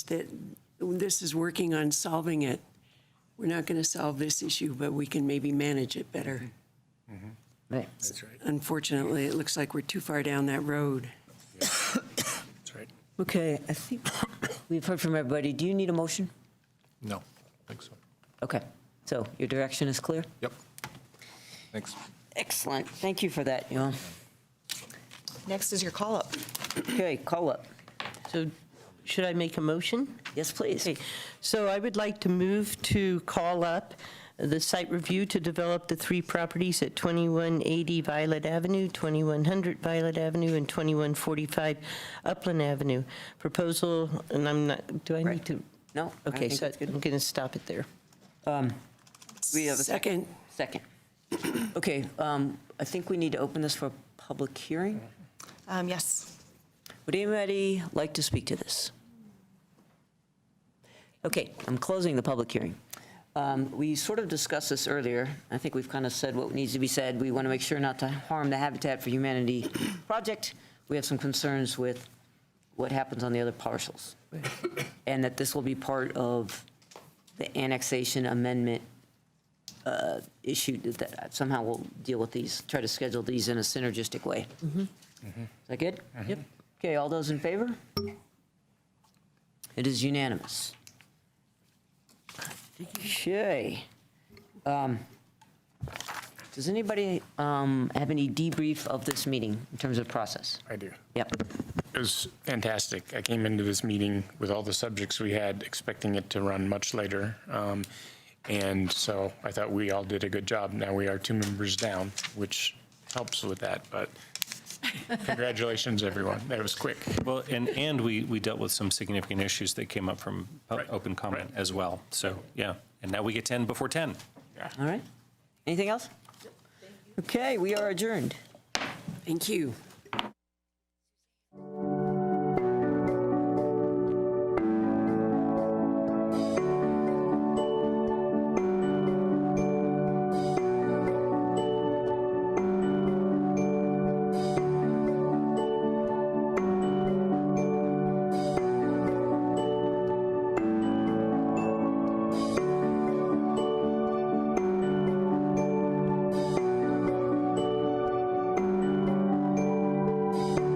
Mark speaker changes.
Speaker 1: that this is working on solving it. We're not going to solve this issue, but we can maybe manage it better.
Speaker 2: Right.
Speaker 3: That's right,
Speaker 1: Unfortunately, it looks like we're too far down that road.
Speaker 3: that's right.
Speaker 2: Okay, I think we've heard from everybody. Do you need a motion?
Speaker 4: No, I think so.
Speaker 2: Okay, so your direction is clear?
Speaker 4: Yep. Thanks.
Speaker 2: Excellent. Thank you for that, Yael.
Speaker 5: Next is your call-up.
Speaker 2: Okay, call up.
Speaker 6: So should I make a motion?
Speaker 2: Yes, please.
Speaker 6: Okay, so I would like to move to call up the site review to develop the three properties at 2180 Violet Avenue, 2100 Violet Avenue, and 2145 Upland Avenue. Proposal, and I'm not, do I need
Speaker 2: Right.
Speaker 6: to?
Speaker 2: No, I
Speaker 6: Okay,
Speaker 2: think
Speaker 6: so
Speaker 2: that's
Speaker 6: I'm
Speaker 2: good.
Speaker 6: going to stop it there.
Speaker 2: We have a
Speaker 1: Second,
Speaker 2: Second. Okay, um, I think we need to open this for a public hearing.
Speaker 5: Um, Yes.
Speaker 2: Would anybody like to speak to this? Okay, I'm closing the public hearing. Um, We sort of discussed this earlier. I think we've kind of said what needs to be said. We want to make sure not to harm the Habitat for Humanity project. We have some concerns with what happens on the other parcels. And that this will be part of the annexation amendment uh, issue that somehow we'll deal with these, try to schedule these in a synergistic way. Is that good? Yep. Okay, all those in favor? It is unanimous. Okay. Um, Does anybody um, have any debrief of this meeting in terms of process?
Speaker 3: I do.
Speaker 2: Yep,
Speaker 3: It was fantastic. I came into this meeting with all the subjects we had, expecting it to run much later. Um, And so I thought we all did a good job. Now we are two members down, which helps with that, but congratulations, everyone. That was quick.
Speaker 7: Well, and, and we, we dealt with some significant issues that came up from o-
Speaker 3: Right,
Speaker 7: open comment
Speaker 3: right.
Speaker 7: as well. So, yeah, and now we get 10 before 10.
Speaker 2: all right. Anything else? Okay, we are adjourned.
Speaker 1: thank you.